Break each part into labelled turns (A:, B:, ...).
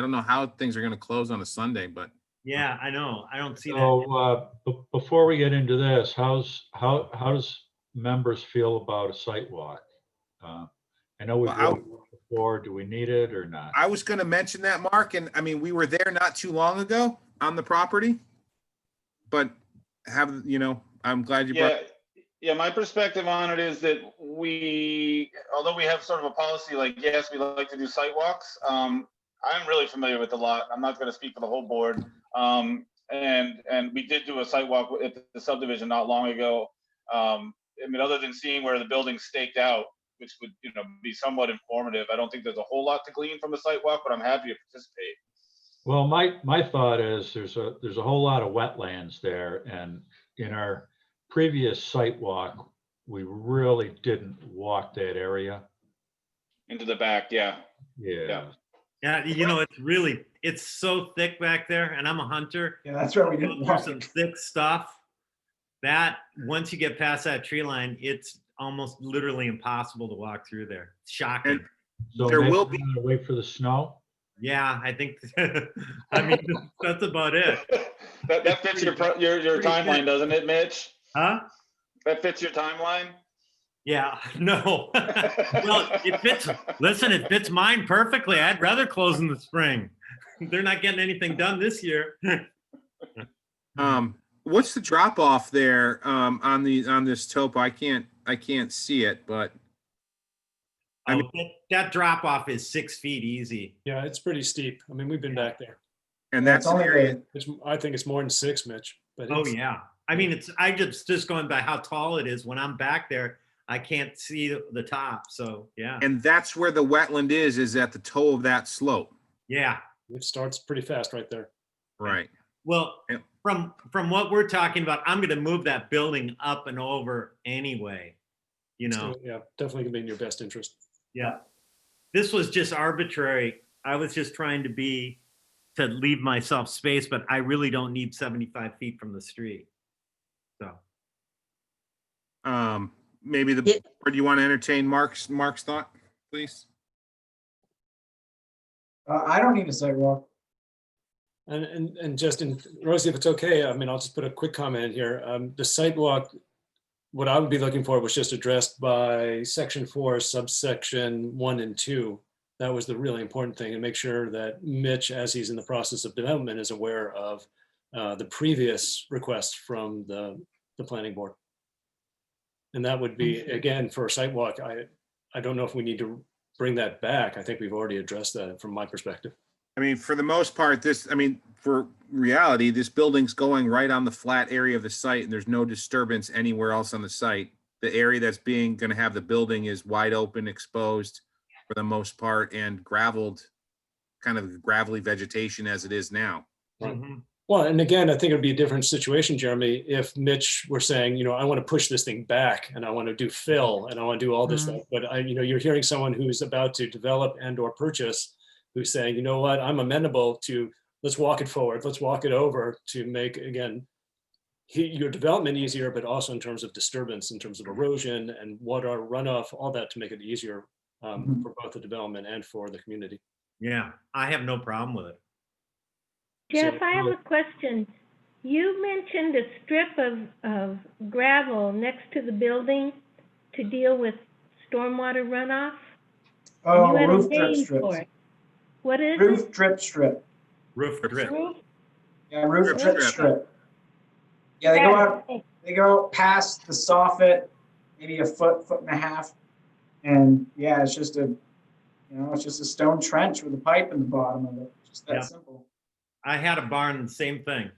A: I don't know how things are gonna close on a Sunday, but
B: Yeah, I know. I don't see that.
C: So, uh, be- before we get into this, how's, how, how does members feel about a site walk? Uh, I know we've
A: Well, I-
C: done it before, do we need it or not?
A: I was gonna mention that, Mark, and I mean, we were there not too long ago on the property. But have, you know, I'm glad you brought,
D: Yeah, yeah, my perspective on it is that we, although we have sort of a policy like, yes, we like to do sidewalks, um, I'm really familiar with the lot. I'm not gonna speak for the whole board. Um, and, and we did do a sidewalk at the subdivision not long ago. Um, I mean, other than seeing where the building's staked out, which would, you know, be somewhat informative, I don't think there's a whole lot to glean from a sidewalk, but I'm happy to participate.
C: Well, my, my thought is there's a, there's a whole lot of wetlands there and in our previous site walk, we really didn't walk that area.
D: Into the back, yeah.
C: Yeah.
D: Yeah.
B: Yeah, you know, it's really, it's so thick back there and I'm a hunter.
E: Yeah, that's right. We
B: Go
E: didn't
B: through
E: walk.
B: some thick stuff. That, once you get past that tree line, it's almost literally impossible to walk through there. Shocking.
C: So
A: There
C: maybe
A: will
C: we're gonna Wait for the snow?
B: Yeah, I think, I mean, that's about it.
D: That, that fits your, pro- your, your timeline, doesn't it, Mitch?
B: Huh?
D: That fits your timeline?
B: Yeah, no. Well, it fits, listen, it fits mine perfectly. I'd rather close in the spring. They're not getting anything done this year.
A: um, what's the drop off there, um, on the, on this topo? I can't, I can't see it, but I mean-
B: Oh, that- That drop off is six feet easy.
F: Yeah, it's pretty steep. I mean, we've been back there.
A: and
E: Yeah, it's
A: that's an
E: only
A: area,
E: the-
F: It's, I think it's more than six, Mitch, but
B: Oh,
F: it's,
B: yeah. I mean, it's, I just, just going by how tall it is. When I'm back there, I can't see the- the top. So, yeah,
A: and that's where the wetland is, is at the toe of that slope.
B: yeah.
F: it starts pretty fast right there.
A: Right.
B: Well,
A: Yeah.
B: from, from what we're talking about, I'm gonna move that building up and over anyway. You know,
F: So, Yeah, definitely gonna be in your best interest.
B: yeah. This was just arbitrary. I was just trying to be, to leave myself space, but I really don't need 75 feet from the street. So,
A: Um, maybe the,
G: Yeah.
A: or do you want to entertain Mark's, Mark's thought, please?
E: Uh, I don't need a sidewalk.
F: And, and, and Justin, Rosie, if it's okay, I mean, I'll just put a quick comment in here. Um, the sidewalk, what I would be looking for was just addressed by section four subsection one and two. That was the really important thing and make sure that Mitch, as he's in the process of development, is aware of uh, the previous request from the, the planning board. And that would be, again, for a sidewalk, I, I don't know if we need to bring that back. I think we've already addressed that from my perspective.
A: I mean, for the most part, this, I mean, for reality, this building's going right on the flat area of the site and there's no disturbance anywhere else on the site. The area that's being, gonna have the building is wide open, exposed for the most part and gravelled, kind of gravelly vegetation as it is now.
F: Right.
B: Mhm.
F: Well, and again, I think it'd be a different situation, Jeremy, if Mitch were saying, you know, I want to push this thing back and I want to do fill and I want to do all
E: Mm.
F: this stuff. But I, you know, you're hearing someone who's about to develop and or purchase who's saying, you know what, I'm amenable to, let's walk it forward, let's walk it over to make, again, he- your development easier, but also in terms of disturbance, in terms of erosion and water runoff, all that to make it easier um,
E: Mhm.
F: for both the development and for the community.
B: yeah, I have no problem with it.
H: Jeff,
F: So-
H: I
E: uh,
H: have a question. You mentioned a strip of, of gravel next to the building to deal with stormwater runoff.
E: Oh,
H: You had a
E: roof drip
H: name for
E: strips.
H: it. What is it?
E: Roof drip strip.
B: Roof drip.
H: Roof?
E: Yeah, roof
A: Drip
E: drip
A: strip.
E: strip. Yeah, they go out,
H: Okay.
E: they go out past the soffit, maybe a foot, foot and a half. And yeah, it's just a, you know, it's just a stone trench with a pipe in the bottom of it. Just
B: Yeah.
E: that simple.
B: I had a barn, same thing.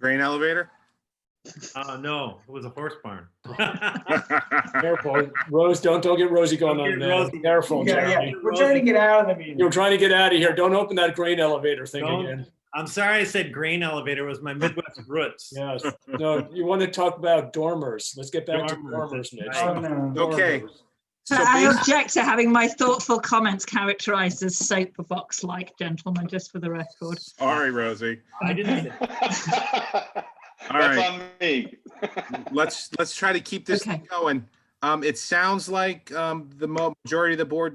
A: Grain elevator?
B: Uh, no, it was a horse barn.
F: Careful, Rose, don't, don't get Rosie going
B: Don't
F: on
B: get
F: there.
B: Rosie.
F: Careful,
E: Yeah,
F: Jeremy.
E: yeah, we're trying to get out of the meeting.
F: You're trying to get out of here. Don't open that grain elevator thing
B: Don't.
F: again.
B: I'm sorry I said grain elevator it was my Midwest roots.
F: Yes. No, you want to talk about dormers. Let's get back to
B: Dormers,
F: dormers, Mitch.
B: that's
E: Oh, no.
A: Okay. So
G: I
A: basi-
G: object to having my thoughtful comments characterized as soapbox-like, gentlemen, just for the record.
A: Sorry, Rosie.
B: I didn't, say-
D: That's
A: right.
D: on me.
A: Let's, let's try to keep this
G: Okay.
A: going. Um, it sounds like, um, the mo- majority of the board